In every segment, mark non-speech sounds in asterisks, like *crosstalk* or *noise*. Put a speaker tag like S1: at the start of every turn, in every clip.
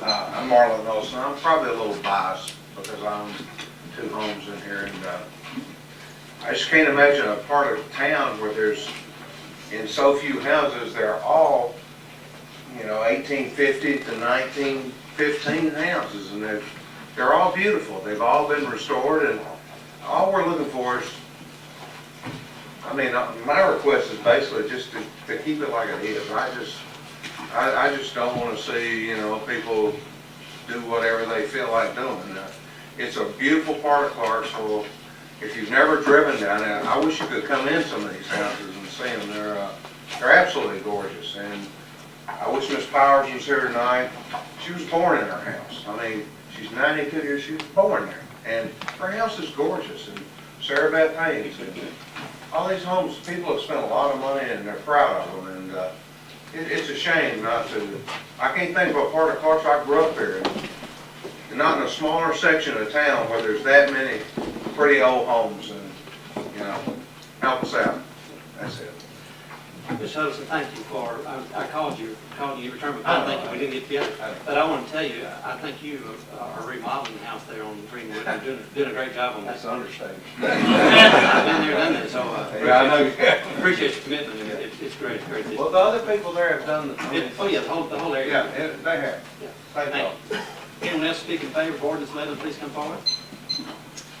S1: Marlon Olson. uh, I'm probably a little biased because I own two homes in here and, uh, I just can't imagine a part of town where there's, in so few houses, they're all, you know, eighteen fifty to nineteen fifteen houses and they're, they're all beautiful. They've all been restored and all we're looking for is, I mean, uh, my request is basically just to, to keep it like it is. I just, I, I just don't wanna see, you know, people do whatever they feel like doing. Uh, It's a beautiful part of Clarksville. If you've never driven down there, I wish you could come in some of these houses and see them. They're, uh, they're absolutely gorgeous. And I wish Miss Powers was here tonight. She was born in her house. I mean, she's ninety-two years, she was born there. And her house is gorgeous and Sarah Beth Haynes and all these homes, people have spent a lot of money and they're proud of them and, uh, it, it's a shame not to, I can't think of a part of Clarksville, I grew up there, and not in a smaller section of town where there's that many pretty old homes and, you know, help us out. That's it.
S2: Ms. Hudson, thank you for, I I called you, called you, you returned my call, thank you, we didn't get together. But I want to tell you, I think you uh, are remodeling the house there on Greenwood, you're doing, doing a great job on that.
S1: *laughs* understatement.
S2: I've been there, done that, so
S1: Yeah, I
S2: I
S1: know.
S2: appreciate your commitment, and it's, it's great, it's great. It-
S3: Well, the other people there have done the, I mean,
S2: Oh, yeah, the whole, the whole
S1: Yeah,
S2: area.
S1: it- they have. Thank you.
S2: Thank you. Anyone else speak in favor of ordinance eleven, please come forward.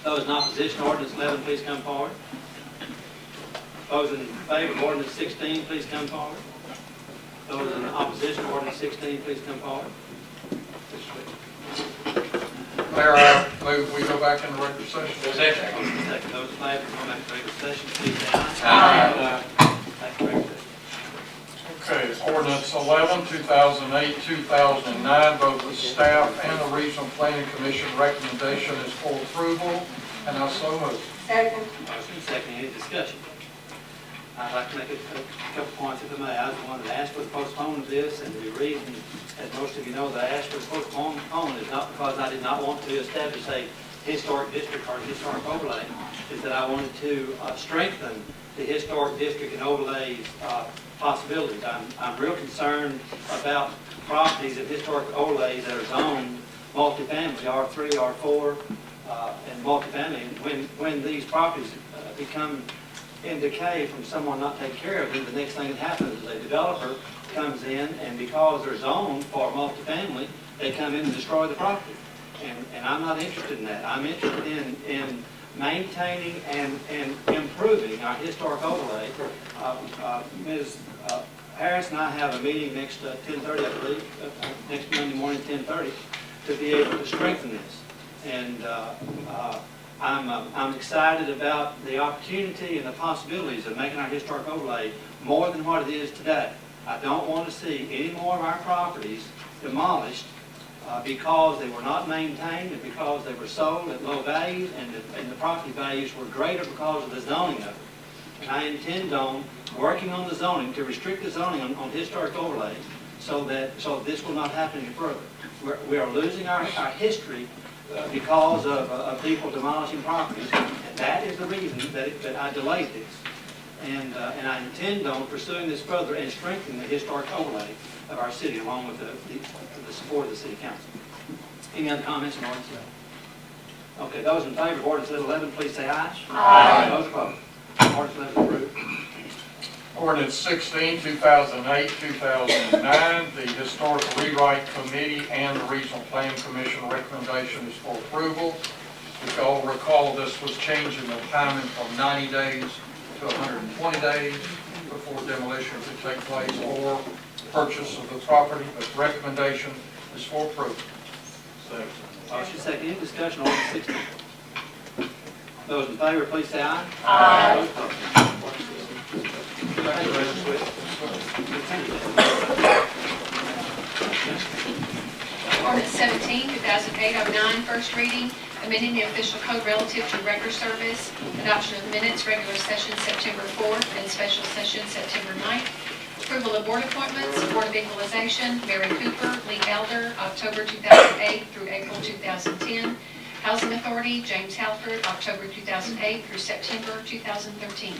S2: Those in opposition, to ordinance eleven, please come forward. Those in favor of ordinance sixteen, please come forward. Those in opposition, to ordinance sixteen, please come forward.
S4: Mayor, I move we go back into regular session.
S2: Second, those in favor, come back to regular session, please say aye.
S4: Aye.
S2: Back to regular session.
S4: Okay, ordinance 11, 2008, 2009, both the staff and the regional planning commission recommendation is for approval, and I so move.
S5: Second.
S2: Motion second, any discussion? I'd like to make a a couple points if I may. I was the one that asked for the postponement of this, and the reason, as most of you know, that I asked for the postponement is not because I did not want to establish a historic district or historic overlay, is that I wanted to uh, strengthen the historic district and overlays uh, possibilities. I'm, I'm real concerned about properties of historic overlays that are zoned multifamily, R3, R4, uh, and multifamily, and when, when these properties uh, become in decay from someone not taking care of them, the next thing that happens is a developer comes in, and because they're zoned for multifamily, they come in and destroy the property. And, and I'm not interested in that. I'm interested in, in maintaining and, and improving our historic overlay. Uh, uh, Ms. uh, Harris and I have a meeting next, uh, 10:30, I believe, uh, uh, next Monday morning, 10:30, to be able to strengthen this. And uh, uh, I'm, uh, I'm excited about the opportunity and the possibilities of making our historic overlay more than what it is today. I don't want to see any more of our properties demolished uh, because they were not maintained and because they were sold at low values and the, and the property values were greater because of the zoning of it. And I intend on working on the zoning, to restrict the zoning on, on historic overlays, so that, so this will not happen any further. We're, we are losing our, our history uh, because of, uh, of people demolishing properties, and that is the reason that, it- that I delayed this. And, uh, and I intend on pursuing this further and strengthening the historic overlay of our city, along with the, the- the support of the city council. Any other comments on ordinance eleven? Okay, those in favor of ordinance eleven, please say aye. Aye. Those opposed? Ordinance eleven approved.
S4: Ordinance 16, 2008, 2009, the historical rewrite committee and the regional planning commission recommendation is for approval. If y'all recall, this was changing the timing from 90 days to 120 days before demolition could take place or purchase of the property, but recommendation is for approval.
S2: Motion second, any discussion on ordinance sixteen? Those in favor, please say aye.
S5: Aye.
S2: Those opposed? Thank you, Mr. Swift. Thank you.
S6: Ordinance 17, 2008-09, first reading, amending the official code relative to record service, adoption of minutes, regular session September 4th and special session September 9th, approval of board appointments, Board of Equalization, Mary Cooper, Lee Elder, October 2008 through April 2010, Housing Authority, James Halford, October 2008 through September 2013.